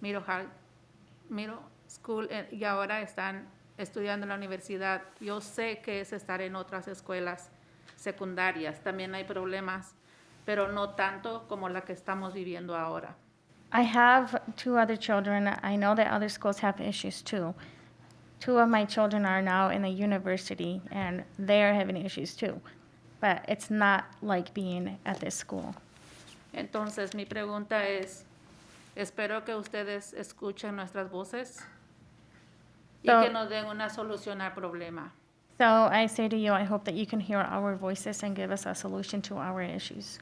Miro High, Miro School eh, y ahora están estudiando en la universidad. Yo sé que es estar en otras escuelas secundarias, también hay problemas, pero no tanto como la que estamos viviendo ahora. I have two other children. I know that other schools have issues too. Two of my children are now in the university and they are having issues too. But it's not like being at this school. Entonces, mi pregunta es, espero que ustedes escuchen nuestras voces y So- que nos den una solución al problema. So I say to you, I hope that you can hear our voices and give us a solution to our issues.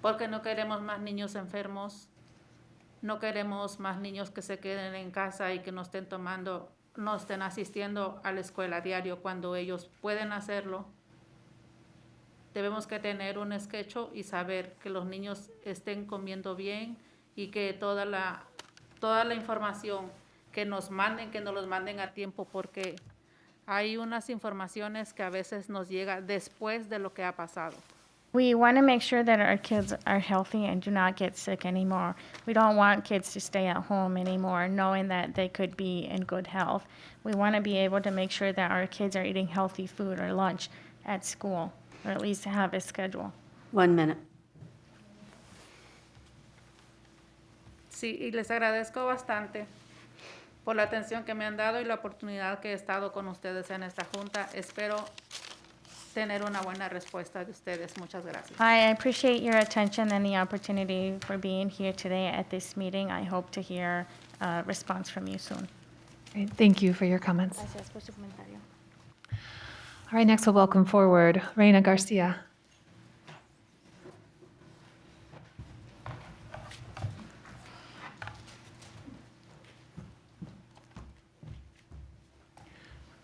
porque no queremos más niños enfermos, no queremos más niños que se queden en casa y que no estén tomando, no estén asistiendo a la escuela diario cuando ellos pueden hacerlo. Debemos que tener un sketch y saber que los niños estén comiendo bien y que toda la, toda la información que nos manden, que nos los manden a tiempo, porque hay unas informaciones que a veces nos llega después de lo que ha pasado. We want to make sure that our kids are healthy and do not get sick anymore. We don't want kids to stay at home anymore knowing that they could be in good health. We want to be able to make sure that our kids are eating healthy food or lunch at school, or at least have a schedule. One minute. Sí, y les agradezco bastante por la atención que me han dado y la oportunidad que he estado con ustedes en esta junta. Espero tener una buena respuesta de ustedes. Muchas gracias. I appreciate your attention and the opportunity for being here today at this meeting. I hope to hear a response from you soon. Great, Thank you for your comments. All right, next we'll welcome forward Reina Garcia.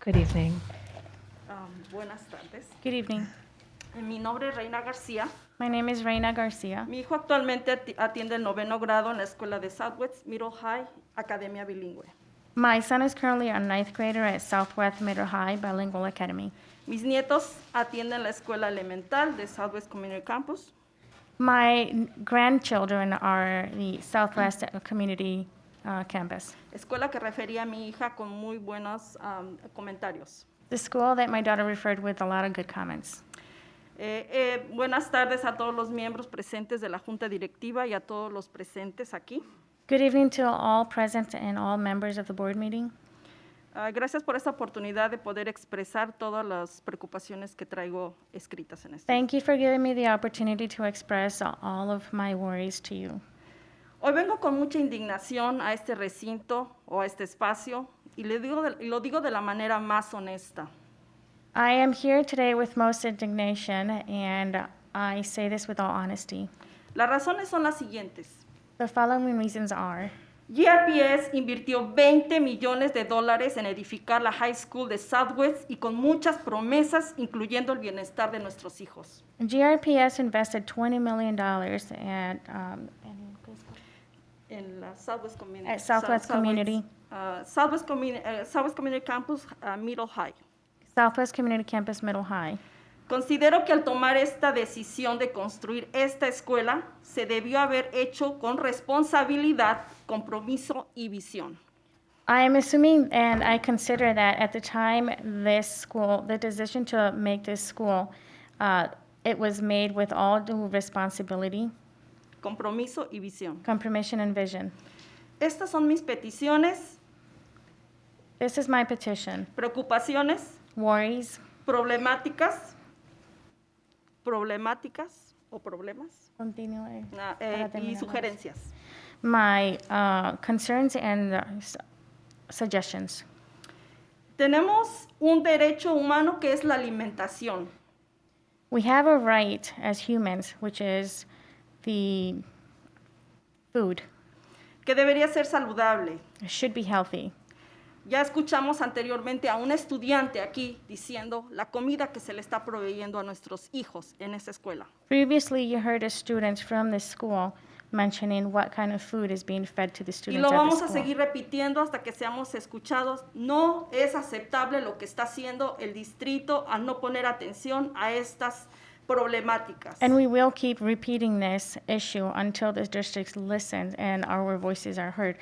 Good evening. Um, buenas tardes. Good evening. Mi nombre es Reina García. My name is Reina Garcia. Mi hijo actualmente ati- atiende el noveno grado en la escuela de Southwest Middle High, Academia Bilingüe. My son is currently a ninth grader at Southwest Middle High Bilingual Academy. Mis nietos atienden la escuela elemental de Southwest Community Campus. My n- grandchildren are the Southwest Community uh, Campus. Escuela que refería a mi hija con muy buenos um, comentarios. The school that my daughter referred with a lot of good comments. Eh, eh, buenas tardes a todos los miembros presentes de la Junta Directiva y a todos los presentes aquí. Good evening to all present and all members of the board meeting. Ah, gracias por esta oportunidad de poder expresar todas las preocupaciones que traigo escritas en este. Thank you for giving me the opportunity to express all of my worries to you. Hoy vengo con mucha indignación a este recinto o a este espacio y le digo de- y lo digo de la manera más honesta. I am here today with most indignation, and I say this with all honesty. Las razones son las siguientes. The following reasons are GRPS invirtió 20 millones de dólares en edificar la High School de Southwest y con muchas promesas, incluyendo el bienestar de nuestros hijos. GRPS invested $20 million at, um, En la Southwest Community. At Eh, Southwest South- Community. ah, Southwest, Communi- eh, Southwest Community Campus ah, Middle High. Southwest Community Campus Middle High. Considero que al tomar esta decisión de construir esta escuela, se debió haber hecho con responsabilidad, compromiso y visión. I am assuming and I consider that at the time this school, the decision to make this school, uh, it was made with all due responsibility, Compromiso y visión. compromission, and vision. Estas son mis peticiones, This is my petition. preocupaciones, Worries, problemáticas, problemáticas o problemas continue. ah, eh, Para terminar. y sugerencias. my uh, concerns and uh, s- suggestions. Tenemos un derecho humano que es la alimentación. We have a right as humans, which is the food que debería ser saludable. It should be healthy. Ya escuchamos anteriormente a un estudiante aquí diciendo la comida que se le está proveyendo a nuestros hijos en esa escuela. Previously, you heard a student from this school mentioning what kind of food is being fed to the Y students lo at the vamos a school. seguir repitiendo hasta que seamos escuchados. No es aceptable lo que está haciendo el distrito al no poner atención a estas problemáticas. And we will keep repeating this issue until the districts listen and our voices are heard.